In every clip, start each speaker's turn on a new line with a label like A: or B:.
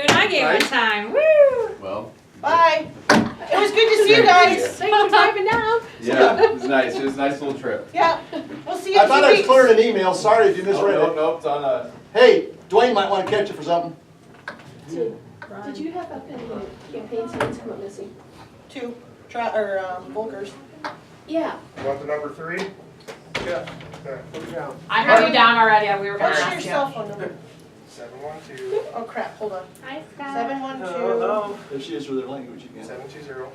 A: on
B: right?
A: time, woo!
B: Well.
C: Bye. It was good to see you guys.
A: Thanks for driving down.
B: Yeah, it was nice, it was a nice little trip.
C: Yeah, we'll see you in two weeks.
D: I thought I was clearing an email, sorry if you
B: Oh,
D: misread
B: no,
D: it.
B: no, it's on a.
D: Hey, Dwayne might wanna catch you for something.
E: Did you have up in the campaign signs come up missing?
C: Two, try, or, um, Volkers.
E: Yeah.
F: Want the number three? Yeah. Okay,
A: I wrote you down already, we were gonna
C: What's your
A: ask you.
C: cell phone number?
F: seven one two,
C: Oh crap, hold on.
A: Hi,
C: Seven one two.
D: There she is with her language again.
F: seven two zero,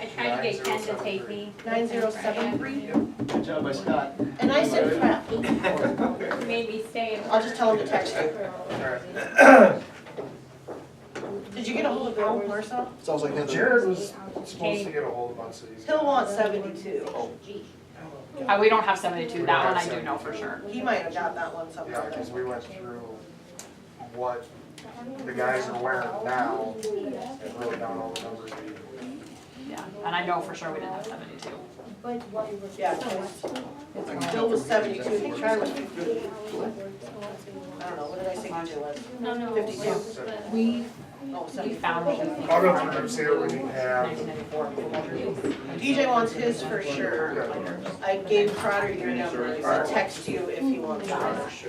A: I tried to get Ken to take me.
C: Nine zero seven three.
D: Good job by Scott.
C: And I said crap.
A: You Made me stay. in-
C: I'll just tell him to text you.
F: alright.
C: Did you get a hold of Al Marcel?
D: Sounds like Heather.
F: Jared was supposed to get a hold of us, so he's.
C: He'll want seventy-two.
A: Uh, we don't have seventy-two, that one I do know for sure.
C: He might have got that one
F: Yeah,
C: somewhere.
F: because we went through what the guys are wearing now and wrote down all the numbers.
A: Yeah, and I know for sure we didn't have seventy-two.
C: Yeah. Bill was seventy-two, I think Charlie was fifty. I don't know, what did I say Joe was?
A: No, no.
C: Fifty-two.
F: So
A: We,
C: Oh,
A: we
C: 72.
A: found the.
F: I'll go through and see what we have.
A: Nineteen ninety-four.
C: DJ wants his for sure. I gave Trotter your number, I'll text you if he wants yours.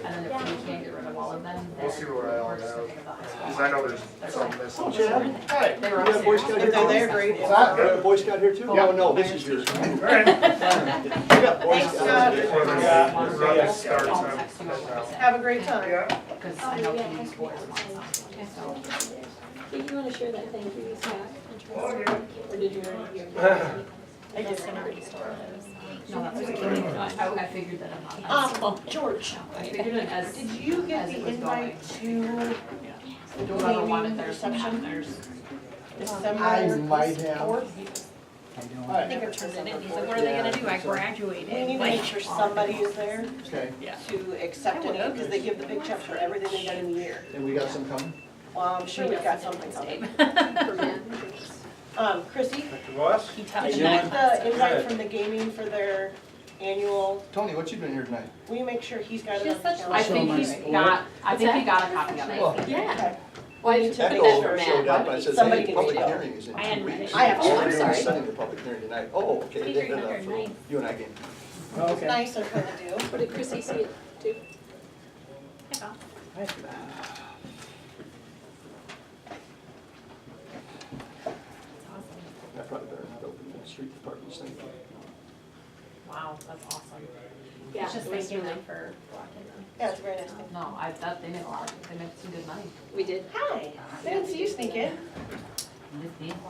A: And then if we can't get rid of all of them, then.
F: We'll see what I all Because
A: have.
F: I know there's some missing.
D: Oh, Chad, hi.
A: They were
D: You got a Boy
A: upstairs.
D: Scout
C: If they're there,
D: here?
C: great.
D: Is
C: If
D: that,
C: not,
D: you got a Boy Scout here too? Yeah, well, no, this is yours.
F: Alright.
D: You got Boy
C: Thanks,
D: Scouts.
C: Scott.
F: Before this-
D: Yeah.
F: this run starts,
A: I'll
F: I'm-
A: text you what
F: I'm out.
A: we said,
C: Have a great time.
F: Yeah,
A: Cause
C: Oh,
A: I know Kenny's boys want some.
E: Did you wanna share that thank you, Scott? and Teresa?
F: Oh, yeah.
E: Or did you already?
C: I just gonna
A: No, that's what Kenny, I, I figured that I'm not.
C: Um, George,
A: I figured it as.
C: did you get the invite to
A: Do whoever wanted theirs to have
C: Reception?
A: theirs.
C: December?
D: I might have.
C: I
D: Hi.
C: think it turns into
G: He's like, what are they gonna do? I graduated.
C: We need to make sure somebody is there
D: Okay,
C: to accept it, because they give the big check for everything they've done in the year.
D: and we got some coming?
C: Well, I'm sure we've got something coming. Um, Chrissy,
F: Dr. Voss?
A: He
C: did
A: touched
C: you
A: that.
C: get the invite from the gaming for their annual,
D: Tony, what you doing here tonight?
C: will you make sure he's got it
G: She's
C: on the
G: such a
C: calendar?
A: I think he's got, I think he got a copy of it.
D: Well,
G: Yeah.
C: Okay.
E: Why
C: We need to make
D: Echo
C: sure.
D: showed up, I said,
C: Somebody
D: hey,
C: needs
D: public
C: to go.
D: hearing is in
G: I
D: two
G: hadn't read
D: weeks.
G: it.
C: I have to.
D: Oh,
C: I'm
D: we're
E: sorry.
D: Setting the public hearing tonight. Oh, okay.
G: These are
D: Then, uh,
G: number nine.
D: You and I game.
C: It's nice of her to do.
E: What did Chrissy see it do?
D: I probably better not open the street department's thing.
A: Wow, that's awesome.
E: Yeah,
G: It's just
E: it was
G: thanking
E: really-
G: them for blocking them.
C: Yeah, it's a very nice thing.
A: No, I, that, they made a lot, they made some good money.
E: We did.
C: Hi, I didn't see you sneak in.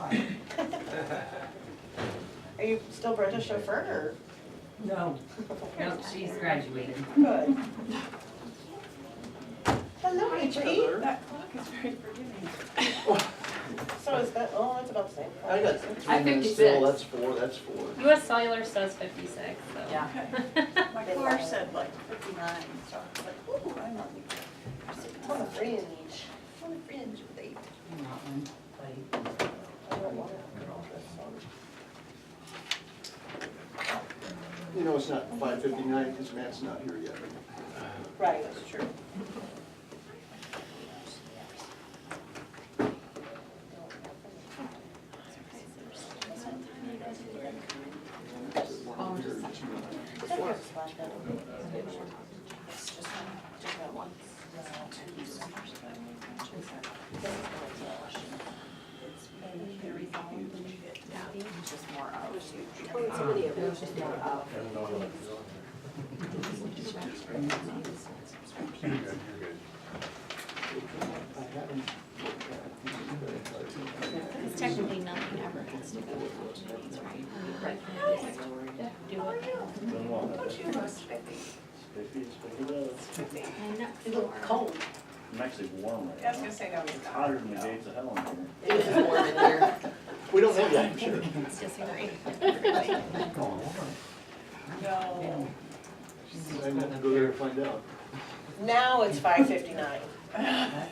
C: Are you still Brenda's chauffeur
H: No, no, she's graduated.
C: or? Good. Hello, HB.
G: That clock is very forgiving.
C: So is that, oh, it's about the same.
D: I got three
A: I'm
D: minutes still,
A: 56.
D: that's four, that's four.
G: US Cellular says fifty-six, so.
A: Yeah.
I: My car said like fifty-nine, so I was like, ooh, I'm on the,
C: I'm on the fringe.
I: I'm on the fringe with eight.
C: I don't want it.
D: You know, it's not five fifty-nine, because Matt's not here yet.
C: Right, that's true.
A: Oh, just- Yeah, it was just more of,
E: Oh, it's somebody else.
A: it was just more of.
G: Because technically nothing ever has to go to committees, right? I mean, right from the store, do it.
I: Don't you know it's fifty?
G: And next
C: It's a little
G: door.
C: cold.
J: I'm actually warm right
I: I was
J: now.
I: gonna say that was.
J: It's hotter than the gates of hell in here.
C: It is warm in here.
D: We don't have that, I'm sure.
G: Let's disagree.
C: No.
D: I might have to go there and find out.
C: Now it's five fifty-nine.
H: That's